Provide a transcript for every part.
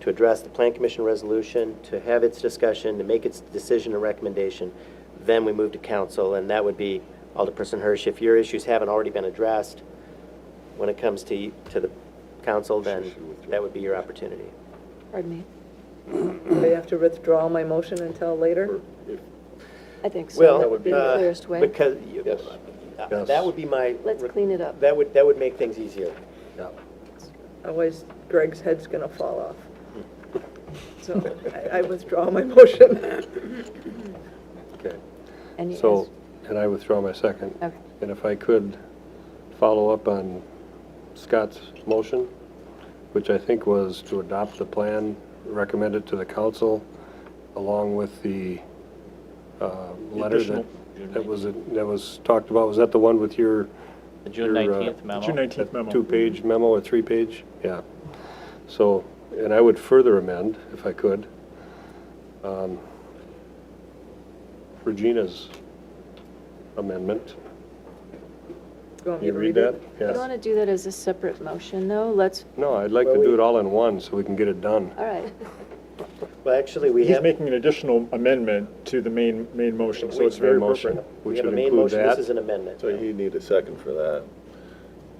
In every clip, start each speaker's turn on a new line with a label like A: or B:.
A: to address the Plan Commission resolution, to have its discussion, to make its decision and recommendation. Then we move to council, and that would be, Alderperson Hirsch, if your issues haven't already been addressed, when it comes to, to the council, then that would be your opportunity.
B: Pardon me?
C: Do I have to withdraw my motion until later?
B: I think so.
A: Well,
B: That would be the
A: uh,
B: clearest way.
A: Because, you-
D: Yes.
A: uh, that would be my.
B: Let's clean it up.
A: That would, that would make things easier.
C: Otherwise Greg's head's going to fall off.
D: Hmm.
C: So I I withdraw my motion.
D: Okay.
B: And you
D: So, and I withdraw my second.
B: Okay.
D: And if I could follow up on Scott's motion, which I think was to adopt the plan recommended to the council along with the uh, letter that, that was, that was talked about. Was that the one with your?
E: The June
D: your, uh,
E: 19th memo.
F: June 19th memo.
D: Two-page memo or three-page? Yeah. So, and I would further amend, if I could, um, Regina's amendment.
C: Want me
D: You
C: to
D: read that?
B: You
D: Yes.
B: want to do that as a separate motion, though? Let's,
D: No, I'd like to do it all in one so we can get it done.
B: all right.
A: Well, actually, we
F: He's
A: have,
F: making an additional amendment to the main, main motion, so it's very
D: Main motion,
F: appropriate.
A: we
D: Which
A: have a
D: would
A: main
D: include
A: motion, this is
D: that,
A: an amendment.
G: So you need a second for that.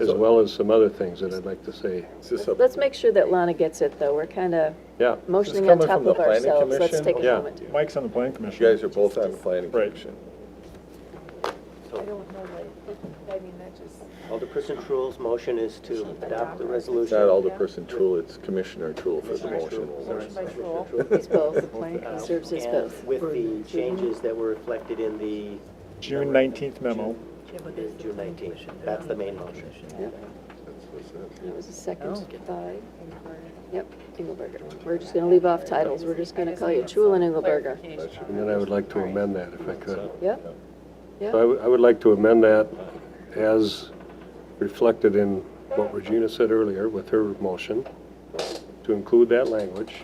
D: as well as some other things that I'd like to say.
G: Is this a-
B: Let's make sure that Lana gets it, though. We're kind of
D: Yeah,
B: motioning on
G: coming
B: top
G: from the
B: of
G: planning
B: ourselves. Let's
G: commission?
B: take a
D: Yeah.
B: moment.
F: Mike's on the planning commission.
G: You guys are both on the planning
F: Right.
G: commission.
H: I don't know, like, I mean, that just,
A: Alderperson Truul's motion is to adopt the
G: It's
A: resolution.
G: not Alderperson Trul, it's Commissioner Trul for the motion.
H: motion by Troll.
B: He's both. The plan
A: Uh,
B: serves as
A: and
B: both.
A: With the changes that were reflected in the
F: June 19th memo.
A: the June 19th. That's the main motion.
B: That was a second by, yep, Engelberger. We're just going to leave off titles. We're just going to call you Chula and Engelberger.
D: and then I would like to amend that if I could.
B: Yep,
D: So I
B: yep.
D: would, I would like to amend that as reflected in what Regina said earlier with her motion, to include that language,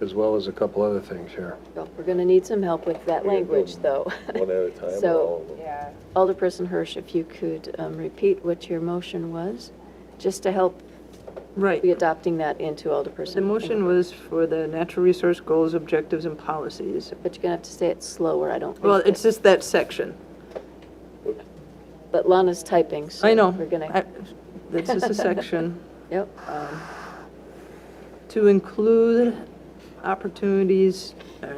D: as well as a couple other things here.
B: Well, We're going to need some help with that language, though.
G: One at a time or all
B: So
G: of them?
H: Yeah.
B: Alderperson Hirsch, if you could um, repeat what your motion was, just to help
C: Right.
B: be adopting that into Alderperson.
C: The motion was for the natural resource goals, objectives, and policies.
B: But you're going to have to say it slower, I don't.
C: Well,
B: think that-
C: it's just that section.
B: But Lana's typing, so.
C: I know.
B: We're going
C: I-
B: to,
C: That's just a section.
B: yep,
C: To include opportunities uh,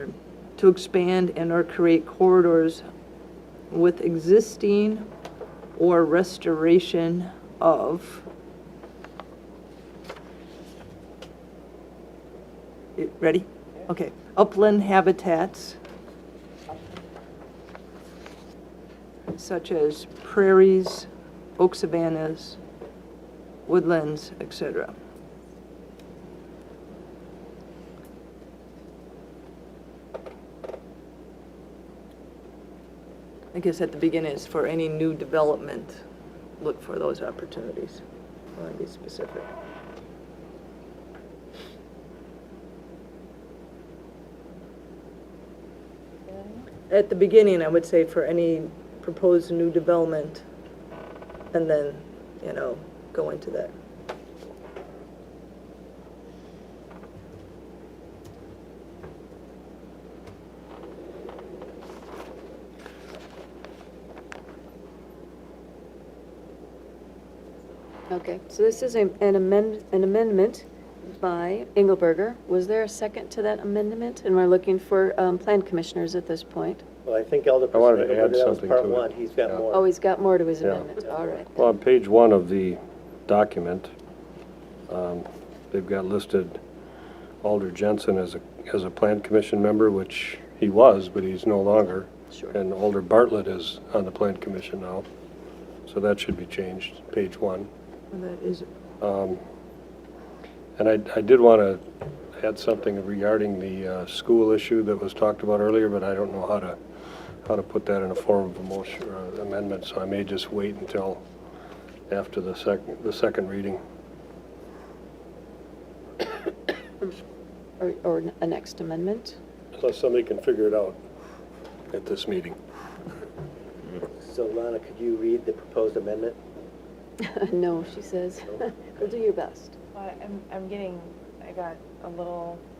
C: to expand and/or create corridors with existing or restoration of. You Ready? Okay. Upland habitats such as prairies, oak savannas, woodlands, etc. I guess at the beginning is for any new development, look for those opportunities. I want to be specific. At the beginning, I would say for any proposed new development, and then, you know, go into that.
B: okay. So this is a- an amend, an amendment by Engelberger. Was there a second to that amendment? And we're looking for um, plan commissioners at this point.
A: Well, I think Alderperson.
D: I wanted to
A: Engelberger,
D: add
A: that was
D: something
A: Part
D: to it.
A: one, he's got
D: Yeah.
A: more.
B: Oh, he's got more to his
D: Yeah.
B: amendment, all right.
D: Well, on page one of the document, um, they've got listed Alder Jensen as a, as a Plan Commission member, which he was, but he's no longer.
B: Sure.
D: And Alder Bartlett is on the Plan Commission now, so that should be changed, page one.
C: And that is,
D: And I, I did want to add something regarding the uh, school issue that was talked about earlier, but I don't know how to, how to put that in a form of a motion or amendment, so I may just wait until after the second, the second reading.
B: Or, or a next amendment?
D: Unless somebody can figure it out at this meeting.
A: So Lana, could you read the proposed amendment?
B: No, she says. We'll do your best.
H: Well, I'm, I'm getting, I
C: got a little